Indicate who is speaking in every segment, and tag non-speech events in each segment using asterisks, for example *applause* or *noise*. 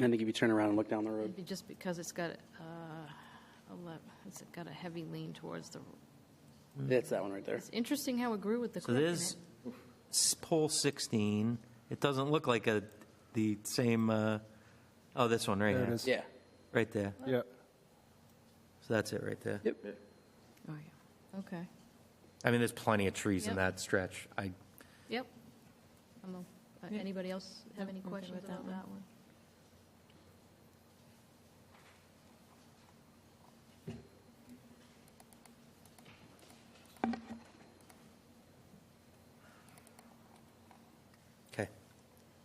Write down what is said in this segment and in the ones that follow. Speaker 1: I think if you turn around and look down the road,
Speaker 2: Maybe just because it's got, uh, a le- it's got a heavy lean towards the,
Speaker 1: that's that one right there.
Speaker 2: it's interesting how it grew with the
Speaker 3: So
Speaker 2: creek in it.
Speaker 3: there's s- pole 16. It doesn't look like a, the same, uh, oh, this one right
Speaker 4: There
Speaker 3: here.
Speaker 4: it is.
Speaker 1: Yeah.
Speaker 3: Right there.
Speaker 4: Yeah.
Speaker 3: So that's it right there.
Speaker 1: Yep.
Speaker 2: Oh, yeah, okay,
Speaker 3: I mean, there's plenty of trees in
Speaker 2: Yep.
Speaker 3: that stretch. I,
Speaker 2: yep. I'm o- uh,
Speaker 5: Yeah.
Speaker 2: Anybody else have
Speaker 5: Nope,
Speaker 2: any
Speaker 5: I'm good
Speaker 2: questions
Speaker 5: with that
Speaker 2: about
Speaker 5: one.
Speaker 2: that one?
Speaker 3: okay.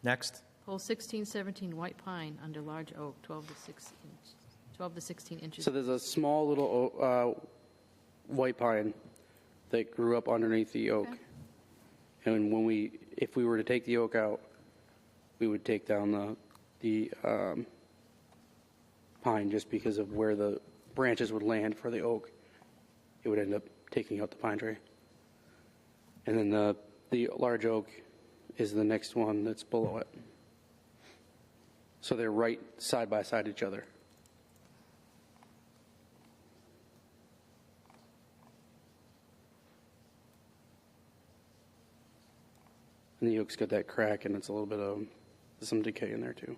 Speaker 3: Next.
Speaker 2: Pole 16, 17, white pine under large oak, 12 to 6 inch, 12 to 16 inches.
Speaker 1: So there's a small little o- uh, white pine that grew up underneath the oak.
Speaker 2: Okay.
Speaker 1: And when we, if we were to take the oak out, we would take down the, the um, pine just because of where the branches would land for the oak. It would end up taking out the pine tree. And then the, the large oak is the next one that's below it. So they're right side by side each other. And the yolk's got that crack and it's a little bit of some decay in there too.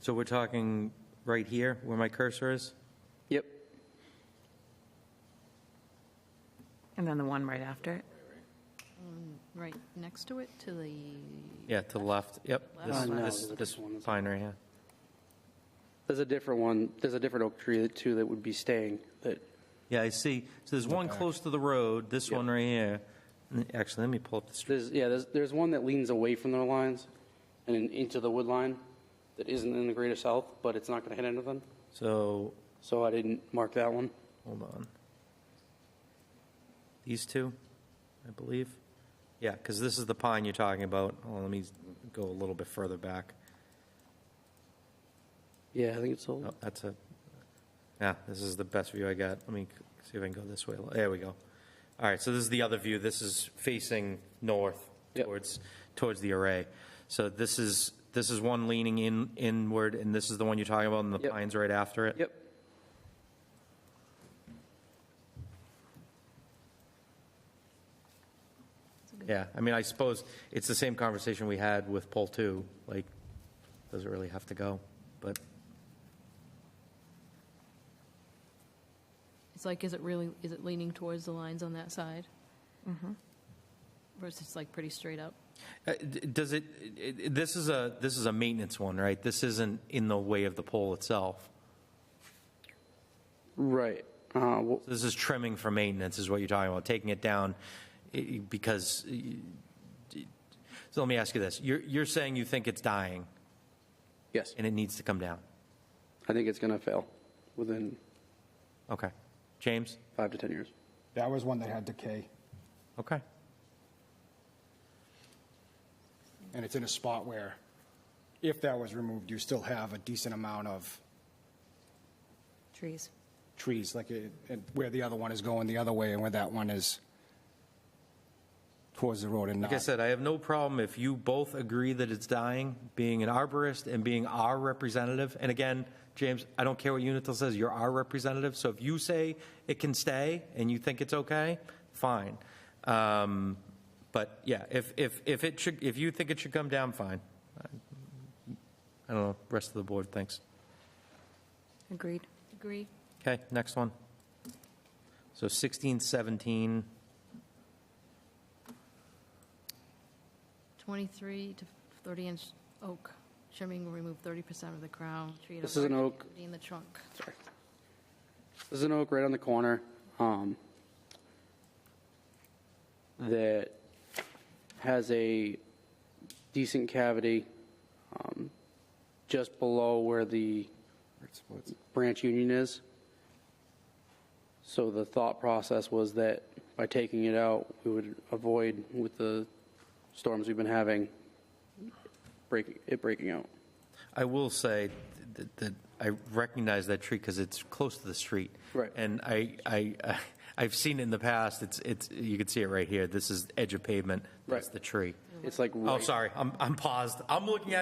Speaker 3: So we're talking right here where my cursor is?
Speaker 1: Yep.
Speaker 5: And then the one right after it.
Speaker 2: Right next to it, to the,
Speaker 3: Yeah, to the left. Yep.
Speaker 1: Uh, no,
Speaker 3: This,
Speaker 1: there's a
Speaker 3: this, this
Speaker 1: different one.
Speaker 3: pine right here.
Speaker 1: There's a different one. There's a different oak tree that too that would be staying. That
Speaker 3: Yeah, I see. So there's one close to the road, this one right here. And Actually, let me pull up the street.
Speaker 1: there's yeah there's there's one that leans away from their lines, and in, into the wood line, that isn't in the greater south, but it's not going to hit anything.
Speaker 3: So,
Speaker 1: So I didn't mark that one.
Speaker 3: hold on. These two, I believe. Yeah, because this is the pine you're talking about. Well, let me go a little bit further back.
Speaker 1: Yeah, I think it's old.
Speaker 3: Oh, that's a, yeah, this is the best view I got. Let me c- see if I can go this way. There we go. All right, so this is the other view. This is facing north
Speaker 1: Yep.
Speaker 3: towards, towards the array. So this is, this is one leaning in, inward, and this is the one you're talking about, and the
Speaker 1: Yep.
Speaker 3: pine's right after it?
Speaker 1: Yep.
Speaker 3: Yeah, I mean, I suppose it's the same conversation we had with poll two, like, does it really have to go? But,
Speaker 2: it's like, is it really, is it leaning towards the lines on that side?
Speaker 5: Mm-hmm.
Speaker 2: Versus it's like pretty straight up?
Speaker 3: uh, d- does it, it- it- this is a, this is a maintenance one, right? This isn't in the way of the pole itself.
Speaker 1: Right. Uh, well,
Speaker 3: This is trimming for maintenance is what you're talking about, taking it down eh, because, eh, so let me ask you this. You're, you're saying you think it's dying
Speaker 1: yes.
Speaker 3: and it needs to come down?
Speaker 1: I think it's going to fail within
Speaker 3: Okay. James?
Speaker 1: five to ten years.
Speaker 4: That was one that had decay,
Speaker 3: Okay.
Speaker 4: and it's in a spot where, if that was removed, you still have a decent amount of
Speaker 5: Trees.
Speaker 4: trees, like it- and where the other one is going the other way, and where that one is towards the road and
Speaker 3: Like I
Speaker 4: not.
Speaker 3: said, I have no problem if you both agree that it's dying, being an arborist and being our representative. And again, James, I don't care what Unitil says, you're our representative. So if you say it can stay and you think it's okay, fine. Um, But yeah, if, if, if it should, if you think it should come down, fine. I don't know, rest of the board thinks.
Speaker 5: Agreed.
Speaker 2: Agree?
Speaker 3: Okay, next one. So 16, 17,
Speaker 2: 23 to 30 inch oak trimming will remove 30% of the crown. Treat
Speaker 1: This
Speaker 2: a
Speaker 1: is an
Speaker 2: large
Speaker 1: oak.
Speaker 2: cavity In the trunk.
Speaker 1: Sorry. There's an oak right on the corner um, that has a decent cavity um, just below where the branch union is. So the thought process was that by taking it out, we would avoid with the storms we've been having breaking it breaking out.
Speaker 3: I will say that, that I recognize that tree because it's close to the street.
Speaker 1: Right.
Speaker 3: And I, I, I- *laughs* I've seen it in the past, it's, it's, you can see it right here. This is edge of pavement. That's
Speaker 1: Right.
Speaker 3: the tree.
Speaker 1: It's like
Speaker 3: Oh,
Speaker 1: right-
Speaker 3: sorry, I'm, I'm paused. I'm looking at